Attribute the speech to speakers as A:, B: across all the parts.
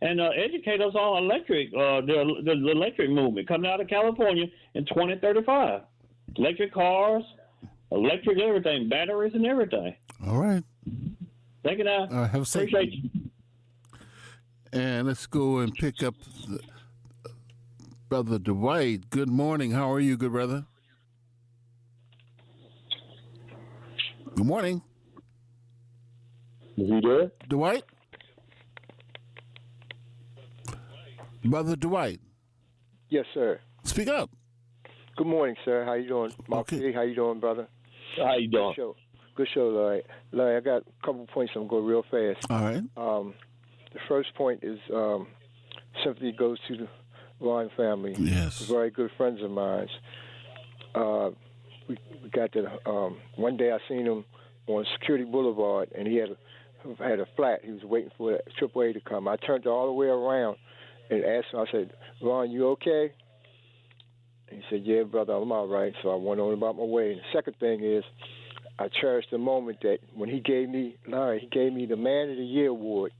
A: and uh, educate us on electric, uh, the, the, the electric movement coming out of California in 2035. Electric cars, electric everything, batteries and everything.
B: All right.
A: Thank you now.
B: Uh, have a safe
A: Appreciate you.
B: And let's go and pick up the, Brother Dwight. Good morning. How are you, good brother? Good morning,
C: Is he there?
B: Dwight. Brother Dwight,
C: Yes, sir.
B: speak up.
C: Good morning, sir. How you doing, Mark?
B: Okay.
C: P? How you doing, brother?
A: How you
C: Good show. Good show, Larry. Larry, I got a couple points. I'm going real fast.
B: All right.
C: Um, the first point is um, simply goes to the Vaughn family.
B: Yes.
C: Very good friends of mine. Uh, we, we got the um, one day I seen him on Security Boulevard, and he had a, had a flat. He was waiting for the AAA to come. I turned all the way around and asked him. I said, "Ron, you okay?" And he said, "Yeah, brother, I'm all right." So I went on about my way. And the second thing is, I cherished the moment that when he gave me Larry, he gave me the Man of the Year award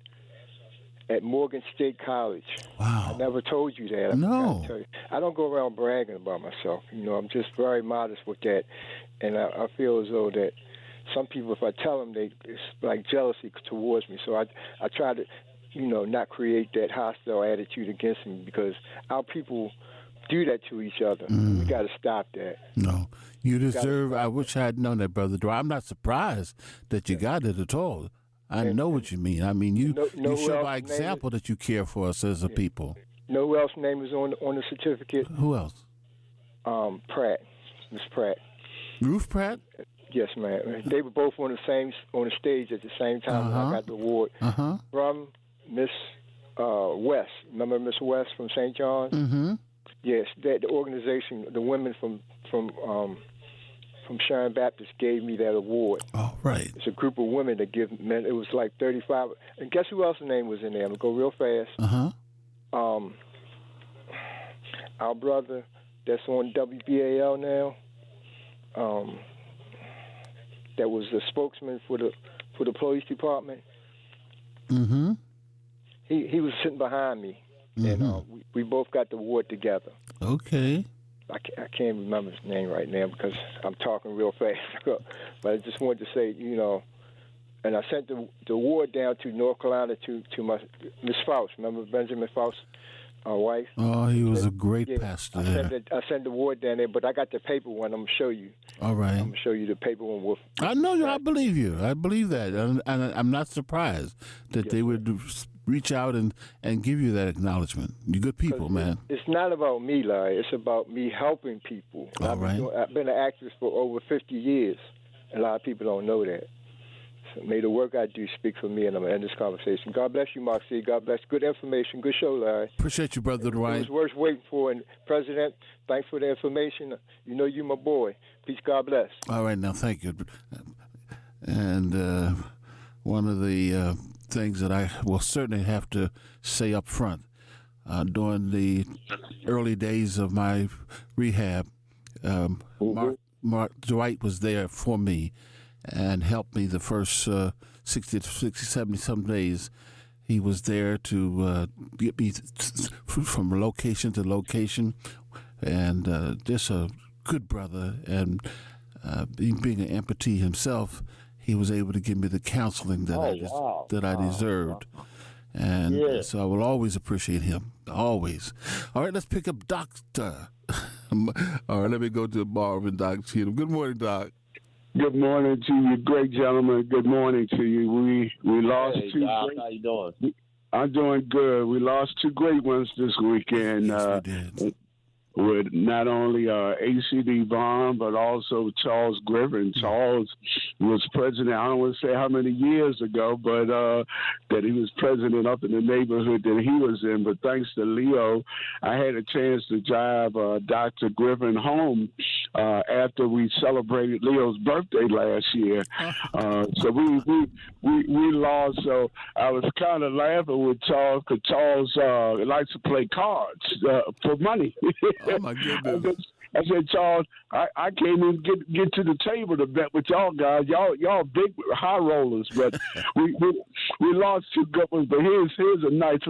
C: at Morgan State College. I
B: Wow.
C: never told you that. I
B: No.
C: forgot to tell you. I don't go around bragging about myself. You know, I'm just very modest with that, and I, I feel as though that some people, if I tell them, they it's like jealousy towards me. So I, I try to, you know, not create that hostile attitude against me because our people do that to each other.
B: Mm.
C: We got to stop that.
B: No, you deserve. I wish I had known that, brother Dwight. I'm not surprised that you got it at all. I know what you mean. I mean, you
C: No- no
B: you show
C: else
B: by
C: name it.
B: example that you care for us as a people.
C: You know who else name is on on the certificate?
B: Who else?
C: Um, Pratt, Miss Pratt.
B: Roof Pratt.
C: Yes, ma'am. They were both on the same on the stage at the same time when
B: Uh-huh.
C: I got the award.
B: Uh huh.
C: from Miss uh, West. Remember Miss West from St. John's?
B: Mm-hmm.
C: Yes, that the organization, the women from from um, from Sharon Baptist gave me that award.
B: All right.
C: It's a group of women that give men. It was like 35. And guess who else's name was in there? I'm gonna go real fast.
B: Uh huh.
C: Um, our brother that's on WBAL now. Um, that was the spokesman for the for the police department.
B: Mm-hmm.
C: He he was sitting behind me. and
B: um,
C: uh, we, we both got the award together.
B: Okay.
C: I can't, I can't remember his name right now because I'm talking real fast. but I just wanted to say, you know, and I sent the the award down to North Carolina to to my Miss Faust. Remember Benjamin Faust, our wife.
B: Oh, he was a great
C: Yeah,
B: pastor
C: I sent
B: there.
C: the, I sent the award down there, but I got the paper one. I'm gonna show you.
B: All
C: I'm
B: right.
C: gonna show you the paper one with
B: I know you. I believe you. I believe that, and, and I'm not surprised that they would s- reach out and and give you that acknowledgement. You good people, man.
C: It's not about me, Larry. It's about me helping people.
B: All
C: I've,
B: right.
C: been doing, I've been an actress for over 50 years. A lot of people don't know that. So may the work I do speak for me, and I'm going to end this conversation. God bless you, Moxie. God bless. Good information. Good show, Larry.
B: Appreciate you, brother
C: It
B: Dwight.
C: was worth waiting for. And, President, thanks for the information. You know you my boy. Peace. God bless.
B: All right, now thank you. And uh, one of the uh, things that I will certainly have to say up front uh, during the early days of my rehab, um, Mark, Mark Dwight was there for me and helped me the first uh, 60 to 60, 70 some days. He was there to uh, get me th- th- from location to location, and uh, just a good brother. And uh, be- being an amputee himself, he was able to give me the counseling that I
A: Oh,
B: des-
A: wow.
B: that I deserved. And
A: Yeah.
B: so I will always appreciate him. Always. All right, let's pick up Doctor. All right, let me go to Marvin Doc Cheatham. Good morning, Doc.
D: Good morning to you, great gentlemen. Good morning to you. We we lost
A: Hey,
D: two.
A: Doc,
D: Great,
A: how you doing?
D: I'm doing good. We lost two great ones this weekend.
B: yes,
D: uh,
B: we did.
D: with not only uh, ACD Vaughn, but also Charles Griffin.
A: Mm.
D: Charles was president, I don't want to say how many years ago, but uh, that he was president up in the neighborhood that he was in. But thanks to Leo, I had a chance to drive uh, Dr. Griffin home uh, after we celebrated Leo's birthday last year. Uh, so we, we we we lost. So I was kind of laughing with Charles because Charles uh, likes to play cards uh, for money.
B: Oh, my
D: I
B: goodness.
D: said, I said, Charles, I, I can't even get get to the table to bet with y'all guys. Y'all y'all big high rollers, but we, we we lost two good ones. But here's here's a nice